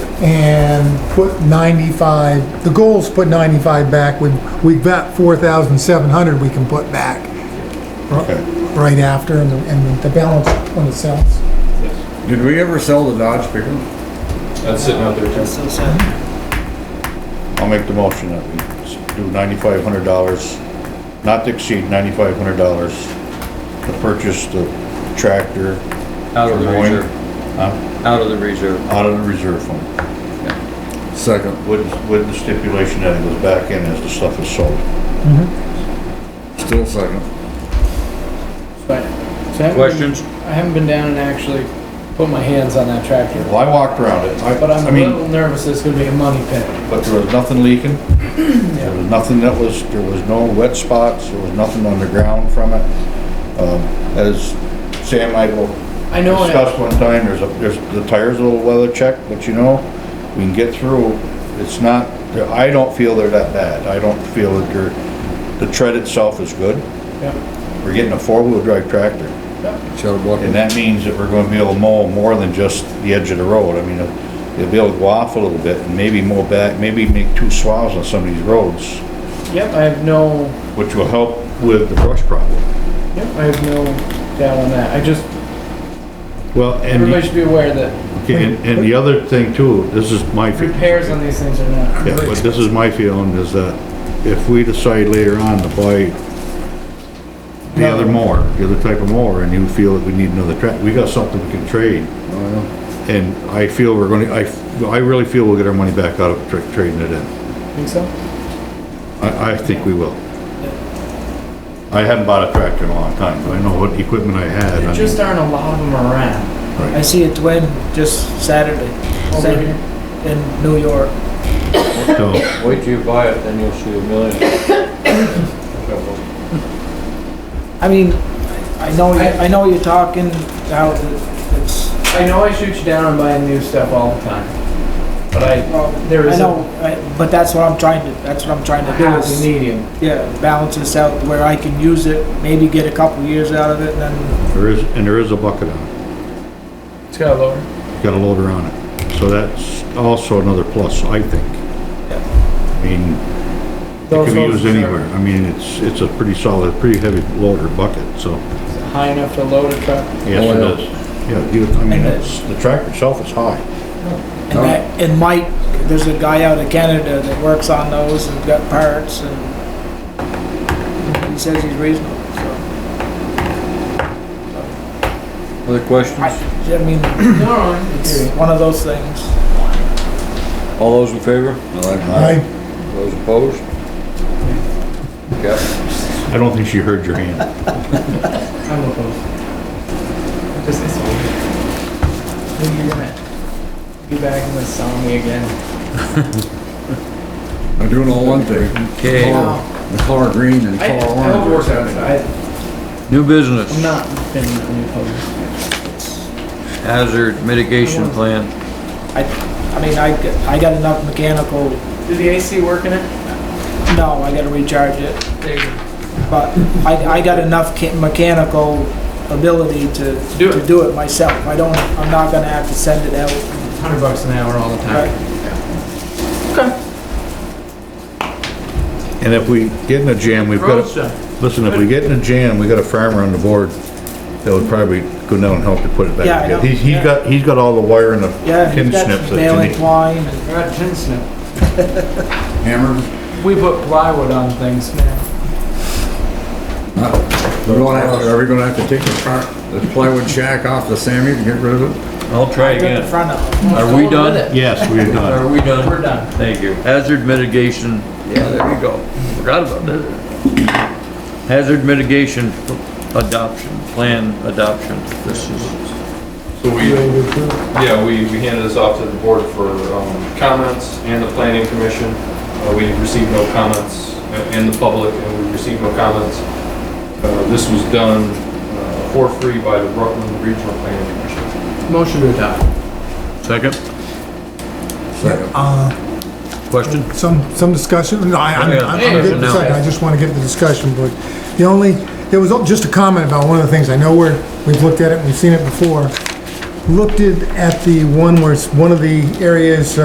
and put 95, the goal's put 95 back, we, we've got 4,700 we can put back Okay. right after, and the, and the balance when it sells. Did we ever sell the Dodge pickup? That's sitting out there too. So sad. I'll make the motion that we do ninety-five hundred dollars, not to exceed ninety-five hundred dollars to purchase the tractor Out of the For mowing? reserve. Huh? Out of the reserve. out of the reserve fund. Second. With, with the stipulation that it goes back in as the stuff is sold. Mm-hmm. Still second. But, so I haven't- Questions? I haven't been down and actually put my hands on that tractor, Well, I walked around it. I, but I'm I a mean, little nervous it's gonna be a money pit. but there was nothing leaking. There was nothing that was, there was no wet spots, there was nothing underground from it. Um, as Sam Michael I know, it- discussed one time, there's, a there's, the tire's a little weather checked, but you know, we can get through. It's not, I don't feel they're that bad. I don't feel that they're, the tread itself is good. Yeah. We're getting a four-wheel drive tractor, Shut up, Bucky. and that means that we're gonna be able to mow more than just the edge of the road. I mean, uh, they'll be able to go off a little bit and maybe mow back, maybe make two swaths on some of these roads, yep, I have no, which will help with the brush problem. yep, I have no doubt on that. I just, Well, everybody should be aware that and, and the other thing too, this is my. feeling. repairs on these things are not. Yeah, but this is my feeling, is that if we decide later on to buy the other mower, the other type of mower, and you feel that we need another tractor, we got something we can trade. And I feel we're gonna, I, I really feel we'll get our money back out of tra- trading it in. Think so? I, I think we will. I haven't bought a tractor in a long time, but I know what equipment I had. There I just mean, aren't a lot of them around right. I see a twin just Saturday over Saturday here. in New York. So, Wait till you buy it, then you'll see a million. I mean, I know, you- I know you're talking how it's, I know I shoot you down on buying new stuff all the time, but I, well, There I is a- know, I- but that's what I'm trying to, that's what I'm trying to do happily is, need him. yeah, balance this out where I can use it, maybe get a couple years out of it and then, there is, and there is a bucket on it, It's got a lower. got a loader on it. So that's also another plus, I think. I mean, It can be used anywhere. I mean, it's, it's a pretty solid, pretty heavy loader bucket, so. High enough to load a truck. Yes, Oh, it yeah. is. Yeah, you, I mean, And it- it's, the tractor itself is high. and that, and Mike, there's a guy out of Canada that works on those and got parts and he says he's reasonable, so. Other questions? I mean, No, I'm it's kidding. one of those things. All those in favor? I, Those opposed? Okay. I don't think she heard your hand. I'm opposed. Just it's weird. Maybe you're gonna be back in the song again. I'm doing all one thing. Okay. Color- The color green and I, color I orange. hope it works out. I, New business, I'm not been on your post. hazard mitigation plan. I, I mean, I, g- I got enough mechanical, Did the AC work in it? no, I gotta recharge it, There you go. but I, I got enough ca- mechanical ability to, Do to it. do it myself. I don't, I'm not gonna have to send it out. Hundred bucks an hour all the time. Right. And if we get in a jam, we've Road got, stuff. listen, if we get in a jam, we got a farmer on the board that would probably go down and help to put it Yeah, I back know. together. He's, he's Yeah. got, he's got all the wire and the Yeah, pin you've got snips that you Bailing need. twine and. I got tin snip. Hammer. We put plywood on things now. We're gonna have, are we gonna have to take the part, the plywood shack off the Sammy to get rid of it? I'll try In again. front of them. Are we done? Yes, we've done. Are we done? We're done. Thank you. Hazard mitigation, yeah, there you go. Forgot about that. Hazard mitigation adoption, plan adoption. This is, So we, yeah, we, we handed this off to the board for um, comments and the planning commission. Uh, We received no comments uh, in the public and we received no comments. Uh, This was done uh, for free by the Rutland Regional Planning Commission. Motion to adopt. second Second. uh, question? some, some discussion, no, I, I'm, Yeah, I'm good for a discussion second, now. I just wanna get the discussion, but the only, there was just a comment about one of the things, I know we're, we've looked at it, we've seen it before. Looked at, at the one where it's, one of the areas, uh,